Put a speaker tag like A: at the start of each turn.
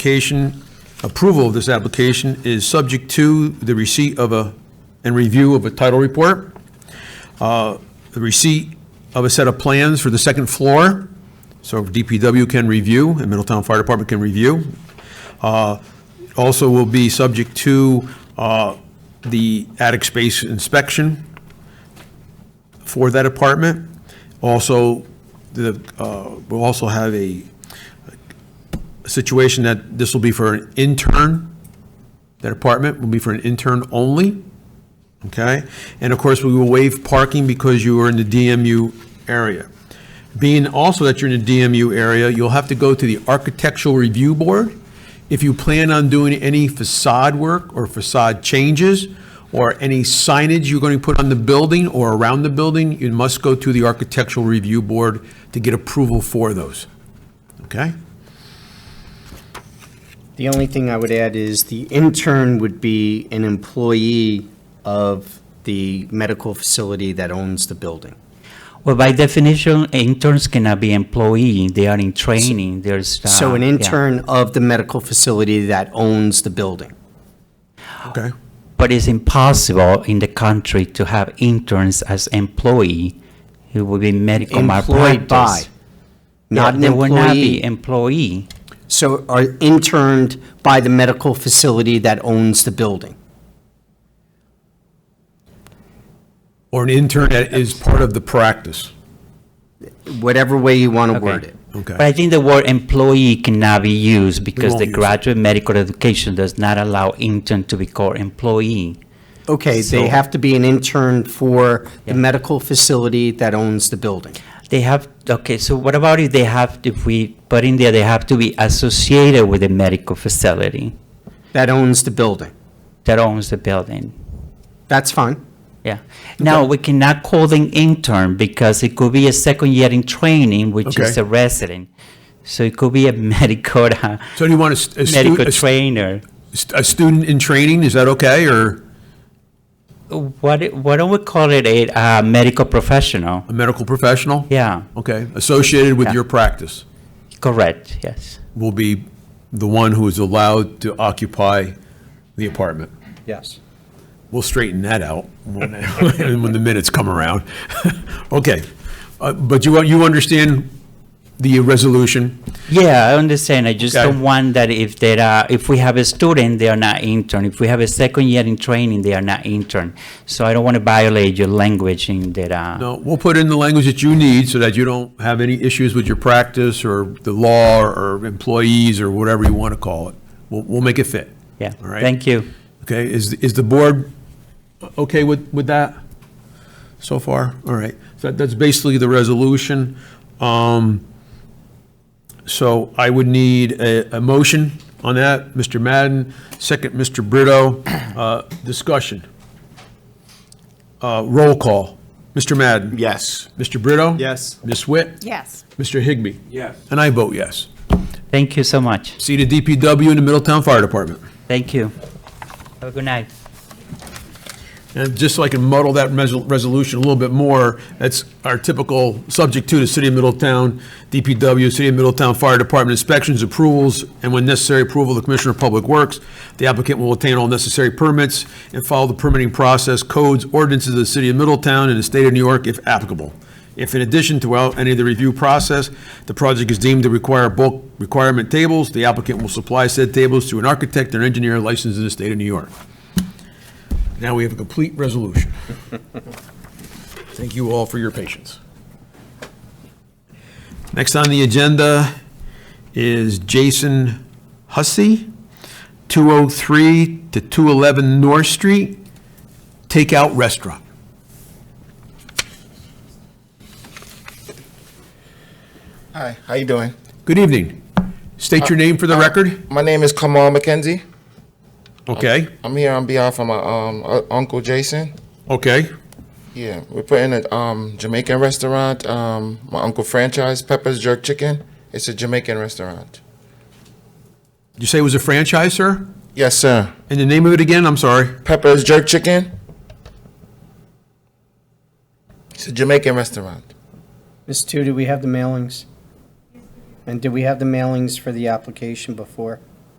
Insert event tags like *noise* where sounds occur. A: Application, approval of this application is subject to the receipt of a, and review of a title report, uh, the receipt of a set of plans for the second floor, so DPW can review, and Middletown Fire Department can review. Uh, Also will be subject to uh, the attic space inspection for that apartment. Also, the, uh, we'll also have a situation that this will be for an intern, that apartment will be for an intern only, okay? And of course, we will waive parking because you are in the DMU area. Being also that you're in the DMU area, you'll have to go to the Architectural Review Board if you plan on doing any facade work or facade changes or any signage you're going to put on the building or around the building, you must go to the Architectural Review Board to get approval for those, okay?
B: The only thing I would add is the intern would be an employee of the medical facility that owns the building.
C: Well, by definition, interns cannot be employee. They are in training. There's uh,
B: So an
C: yeah.
B: intern of the medical facility that owns the building.
A: Okay.
C: But it's impossible in the country to have interns as employee. It would be medical
B: Employed by,
C: malpractice.
B: not
C: Oh, Yeah,
B: an
C: they will not
B: employee.
C: be employee.
B: So are interned by the medical facility that owns the building.
A: Or an intern that is part of the practice.
B: Whatever way you want to word
C: Okay.
B: it.
C: But I
A: Okay.
C: think the word employee cannot be used because
A: won't
C: the
A: use it.
C: graduate medical education does not allow intern to be called employee.
B: Okay, they
C: So-
B: have to be an intern for the
C: Yeah.
B: medical facility that owns the building.
C: They have, okay, so what about if they have, if we put in there, they have to be associated with a medical facility
B: That owns the building.
C: that owns the building?
B: That's fine.
C: Yeah. Now, we cannot call them intern because it could be a second year in training, which is
A: Okay.
C: a resident. So it could be a *laughs* medical, uh,
A: So do you want a st- a stu-
C: medical
A: a st-
C: trainer.
A: a student in training, is that okay, or
C: What, it- why don't we call it a, uh medical professional?
A: a medical professional?
C: Yeah,
A: Okay, associated with
C: Yeah.
A: your practice
C: correct, yes.
A: will be the one who is allowed to occupy the apartment.
B: Yes.
A: We'll straighten that out when when *laughs* the minutes come around. Okay, Uh, but you, you understand the resolution?
C: Yeah, I understand. I just
A: Okay.
C: don't want that if there are, if we have a student, they are not intern. If we have a second year in training, they are not intern. So I don't want to violate your language in that, uh,
A: No, we'll put in the language that you need so that you don't have any issues with your practice or the law or employees or whatever you want to call it. We'll, we'll make it fit.
C: yeah.
A: All right.
C: Thank you.
A: Okay, is, is the board okay with, with that so far? All right, so that's basically the resolution. Um, So I would need a, a motion on that. Mr. Madden, second, Mr. Brito. Uh, Discussion. Uh, Roll call. Mr. Madden?
D: Yes.
A: Mr. Brito?
D: Yes.
A: Ms. Witt?
E: Yes.
A: Mr. Higbee?
D: Yes.
A: And I vote yes.
C: Thank you so much.
A: See the DPW and the Middletown Fire Department.
C: Thank you. Have a good night.
A: And just so I can muddle that resol- resolution a little bit more, that's our typical subject to the City of Middletown, DPW, City of Middletown Fire Department inspections, approvals, and when necessary, approval of the Commissioner of Public Works. The applicant will obtain all necessary permits and follow the permitting process, codes, ordinances of the City of Middletown and the State of New York if applicable. If in addition to well, any of the review process, the project is deemed to require bulk requirement tables, the applicant will supply said tables to an architect or engineer licensed in the State of New York. Now we have a complete resolution. Thank you all for your patience. Next on the agenda is Jason Hussey, 203 to 211 North Street, Takeout Restaurant.
D: Hi, how you doing?
A: Good evening. State your name for the record.
D: My name is Kamal McKenzie.
A: Okay,
D: I'm here on behalf of my um uh, uncle Jason.
A: okay,
D: Yeah, we're putting a um Jamaican restaurant. Um, my uncle franchise Pepper's Jerk Chicken. It's a Jamaican restaurant.
A: you say it was a franchise, sir?
D: Yes, sir.
A: And the name of it again, I'm sorry?
D: Pepper's Jerk Chicken. It's a Jamaican restaurant.
B: Ms. Two, do we have the mailings? And did we have the mailings for the application before?